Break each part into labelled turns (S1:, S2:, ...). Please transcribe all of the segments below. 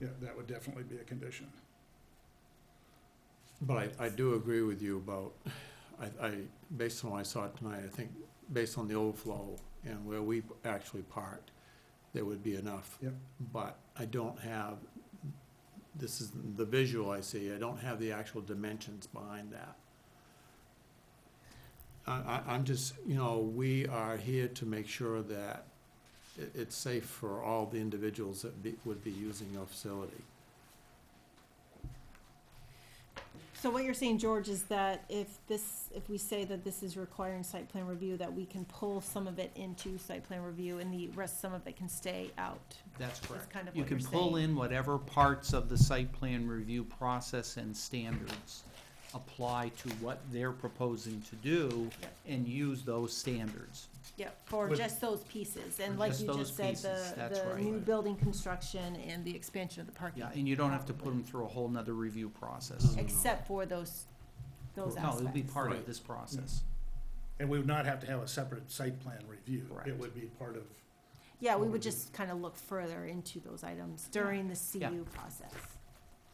S1: yeah, that would definitely be a condition.
S2: But I, I do agree with you about, I, I, based on what I saw tonight, I think, based on the overflow and where we actually parked, there would be enough.
S1: Yep.
S2: But I don't have, this is the visual I see, I don't have the actual dimensions behind that. I, I, I'm just, you know, we are here to make sure that it, it's safe for all the individuals that be, would be using your facility.
S3: So what you're saying, George, is that if this, if we say that this is requiring site plan review, that we can pull some of it into site plan review and the rest, some of it can stay out?
S4: That's
S3: That's
S4: correct.
S3: kind of
S4: You
S3: what you're
S4: can
S3: saying?
S4: pull in whatever parts of the site plan review process and standards apply to what they're proposing to do
S3: Yep.
S4: and use those standards.
S3: Yeah, for
S4: With-
S3: just those pieces,
S4: For
S3: and like
S4: just
S3: you
S4: those
S3: just said,
S4: pieces, that's
S3: the, the
S4: right.
S3: new building construction and the expansion of the parking.
S4: Yeah, and you don't have to put them through a whole nother review process.
S2: Mm.
S3: Except for those, those
S4: No,
S3: aspects.
S4: it'll be part of
S2: Right.
S3: Mm-hmm.
S4: this process.
S1: And we would not have to have a separate site plan review. It
S4: Correct.
S1: would be part of,
S3: Yeah, we
S1: what we
S3: would
S1: do.
S3: just kind of look further into those items during the CU process.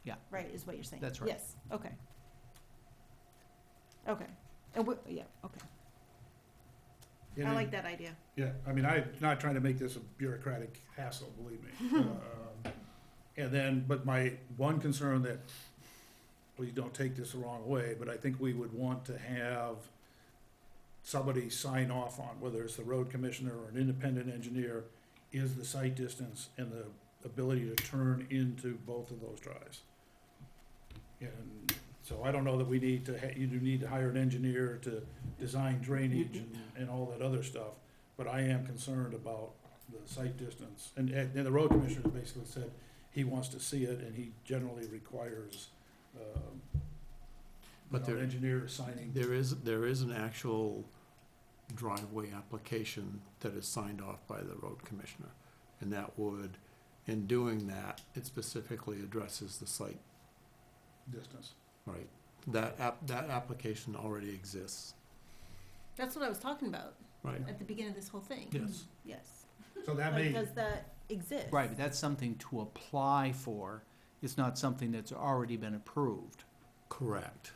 S4: Yeah.
S3: Right, is what you're saying?
S4: That's right.
S3: Yes, okay. Okay, and we, yeah, okay.
S1: you
S3: I
S1: know,
S3: like that idea.
S1: yeah, I mean, I'm not trying to make this a bureaucratic hassle, believe me. Um, And then, but my one concern that, please don't take this the wrong way, but I think we would want to have somebody sign off on, whether it's the road commissioner or an independent engineer, is the site distance and the ability to turn into both of those drives. And so I don't know that we need to, ha- you do need to hire an engineer to design drainage and, and all that other stuff, but I am concerned about the site distance. And, and the road commissioner basically said he wants to see it, and he generally requires, um,
S2: But
S1: you know,
S2: there-
S1: an engineer signing.
S2: There is, there is an actual driveway application that is signed off by the road commissioner. And that would, in doing that, it specifically addresses the site,
S1: distance.
S2: right? That app, that application already exists,
S3: That's what I was talking about
S2: right?
S3: at the beginning of this whole thing.
S2: Yes.
S3: Yes.
S1: So that
S3: Like,
S1: may,
S3: does that exist?
S4: Right, but that's something to apply for. It's not something that's already been approved.
S2: Correct.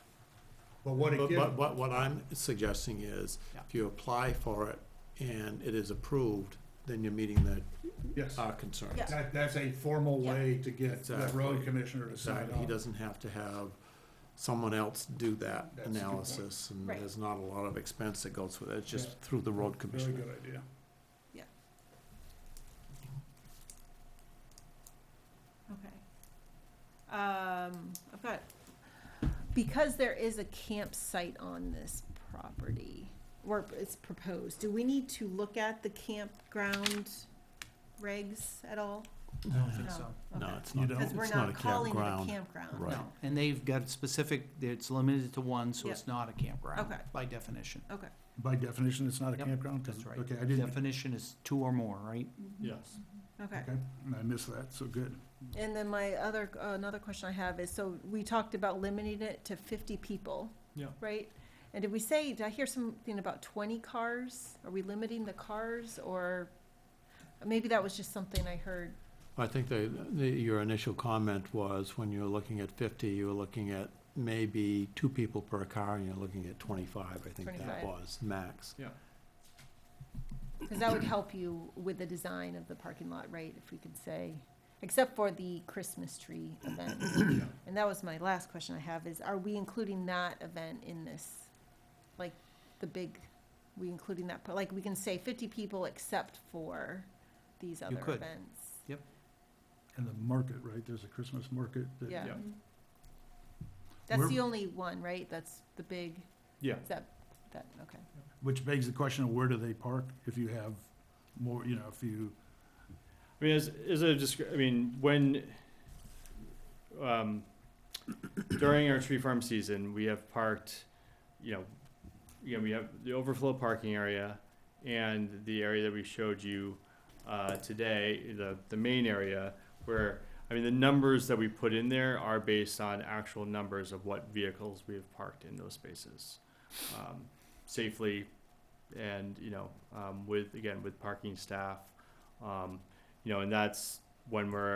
S1: but what it
S2: But,
S1: gives,
S2: but, but what I'm suggesting is, if you apply for it and it is approved, then you're meeting the,
S1: yes,
S2: our concerns.
S3: Yeah.
S1: that, that's a formal way to get the road
S2: uh, Exactly.
S1: commissioner to sign
S2: Exactly. He
S1: off.
S2: doesn't have to have someone else do that
S1: That's a good point.
S2: analysis, and
S3: Right.
S2: there's not a lot of expense that goes with it, it's
S1: Yeah.
S2: just through the road
S1: Very
S2: commissioner.
S1: good idea.
S3: Okay. Um, I've got, because there is a campsite on this property, or it's proposed, do we need to look at the campground regs at all?
S4: I
S1: Uh,
S4: don't think
S3: No.
S4: so.
S2: No,
S3: Okay.
S2: it's
S1: You
S2: not,
S1: don't-
S3: Because we're
S2: it's not a
S3: not calling it a
S2: campground.
S3: campground.
S2: Right.
S4: No, and they've got specific, it's limited to one, so it's not a campground
S3: Okay.
S4: by definition.
S1: By definition, it's not a
S4: Yep,
S1: campground? 'cause-
S4: That's right.
S1: Um, Okay, I didn't,
S4: Definition is two or more, right?
S2: Yes.
S3: Okay.
S1: okay, I missed that, so good.
S3: And then my other, another question I have is, so we talked about limiting it to fifty people.
S2: Yeah.
S3: Right? And did we say, did I hear something about twenty cars? Are we limiting the cars or, maybe that was just something I heard.
S2: I think the, the, your initial comment was, when you're looking at fifty, you were looking at maybe two people per car, and you're looking at twenty-five, I think that
S3: 25.
S2: was, max.
S3: Cause that would help you with the design of the parking lot, right? If we could say, except for the Christmas tree event. And that was my last question I have is, are we including that event in this? Like, the big, we including that, but like, we can say fifty people except for these other
S4: could.
S3: events.
S1: And the market, right, there's a Christmas market that.
S3: Yeah.
S2: Yeah.
S3: That's
S1: We're-
S3: the only one, right? That's the big?
S2: Yeah.
S3: Is that, that, okay.
S1: Which begs the question of where do they park if you have more, you know, if you,
S5: I mean, is, is it just, I mean, when, um, during our tree farm season, we have parked, you know, you know, we have the overflow parking area and the area that we showed you, uh, today, the, the main area where, I mean, the numbers that we put in there are based on actual numbers of what vehicles we have parked in those spaces. Um, safely and, you know, um, with, again, with parking staff, um, you know, and that's when we're